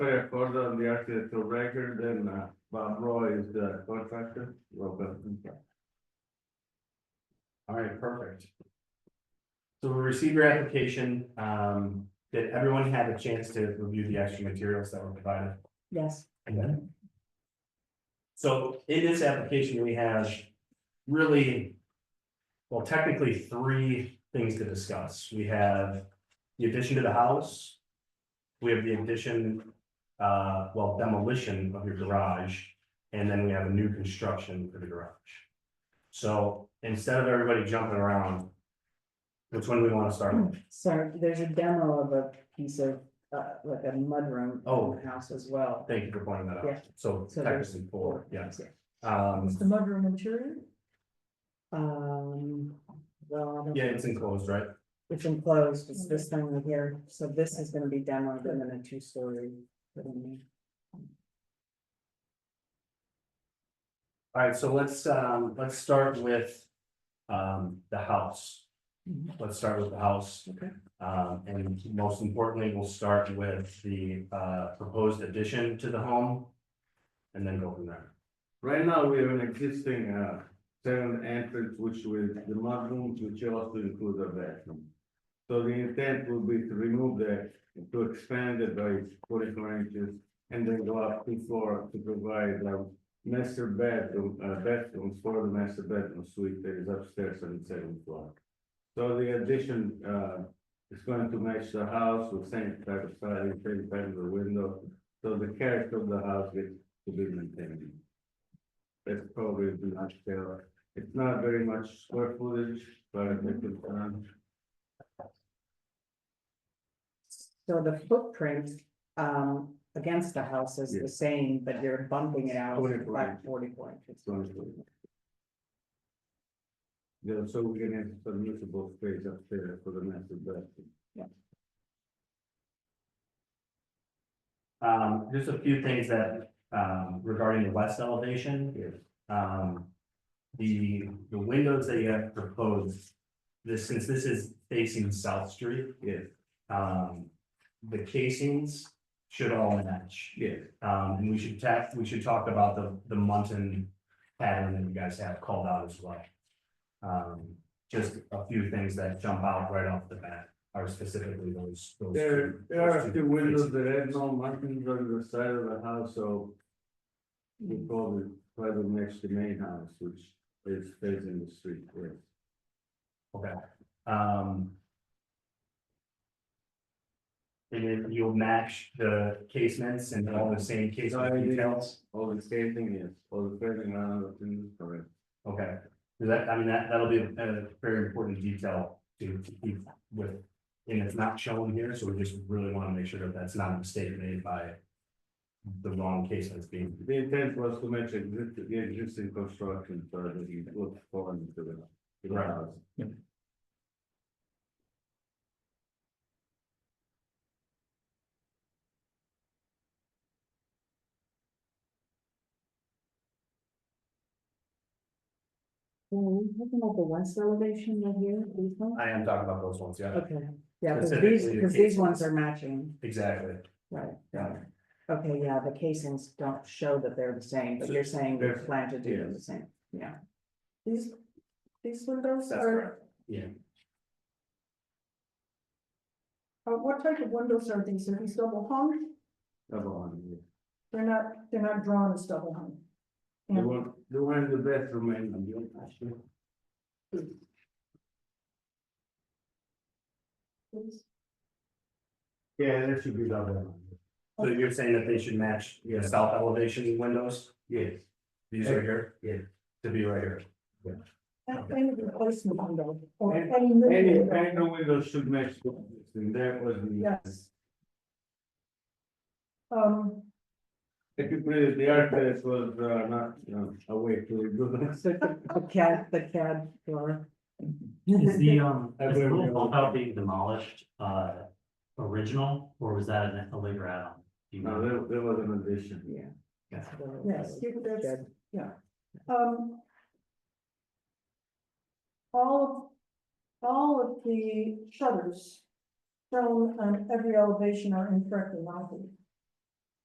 Claire Corda on the architectural record and uh, Bob Roy is the contractor. Welcome. All right, perfect. So we received your application, um, did everyone have a chance to review the extra materials that were provided? Yes, So in this application, we have really. Well, technically, three things to discuss. We have the addition to the house. We have the addition, uh, well, demolition of your garage, and then we have a new construction for the garage. So instead of everybody jumping around. Which one do we want to start Hmm. with? sorry, there's a demo of a piece of, uh, like a mudroom. in Oh. the House as well. Thank you for pointing that Yeah. out. So So there's technically four, yeah. Is Um, the mudroom interior? Um, well, I don't yeah, it's enclosed, right? It's enclosed, it's this thing right here, so this is gonna be demoed and then a two-story. All right, so let's, um, let's start with, um, the house. Mhm. Let's start with the house. Okay. Um, and most importantly, we'll start with the, uh, proposed addition to the home. And then go from there. Right now, we have an existing uh tenant entrance, which with the mudrooms, which also include a bathroom. So the intent will be to remove that, and to expand it by forty-four inches, and then go up to floor to provide a master bedroom, uh bedroom for the master bedroom suite that is upstairs on the seventh floor. So the addition uh is going to match the house with same type of siding, same type of window, so the character of the house gets to be maintained. That's probably the much fair. It's not very much square footage, but I think it's, um, So the footprint, um, against the house is Yeah. the same, but you're bumping it out 44 by inches. forty-four inches. it's only- Yeah, so we can have some usable space up there for the master bedroom. Um, just a few things that, um, regarding the west elevation, Yes, um. The, the windows that you have proposed, this, since this is facing South Street, yes, um, the casings should all match. yes, Um, and we should tap, we should talk about the, the muntin pattern that you guys have called out as well. Um, just a few things that jump out right off the bat are specifically those. those there, two- there are those the two windows casings. that have no markings on the side of the house, so. We probably try to match the main house, which is facing the street, yes. Um. And then you'll match the casements and all the same Sorry, casement I didn't- details. All the same thing, yes, all the framing around the things, correct. Okay, 'Cause that, I mean, that, that'll be a- a very important detail to to keep with, and it's not shown here, so we just really want to make sure that that's not a mistake made by the wrong case that's being, The intent was to match exist- the existing construction, so that you look forward to the- to the Right. house. Well, we're talking about the west elevation right here, these ones? I am talking about those ones, yeah, Okay, yeah, because these, Specifically the because these casings. ones are matching, exactly. right? Yeah. Okay, yeah, the casings don't show that they're the same, but So you're saying they're- they're planted to do the same, yeah. These, these windows That's are. correct. Yeah. Uh, what type of windows are these? Are these double hung? Come on, yeah. They're not, they're not drawn as double hung. The one, the one in the bathroom and the other one. Yeah, that should be the other one. So you're saying that they should match, you know, south elevation windows, Yes, these are here? Yeah. To be right here, And any replacement window or And- any new any, window. any window should match, the existing. that was the, Yes. Um, if you put it, the architect was uh, not, you know, awake to it, but- so the the CAD, the CAD door. Is the, um, I've is the never little been bump able to- out being demolished, uh, original, or was that an- a later add-on? Do you No, know? there, there was an addition. Yeah. Yeah. Yes, you- that's, Good. yeah, um. All, of all of the shutters shown on every elevation are incorrectly mounted.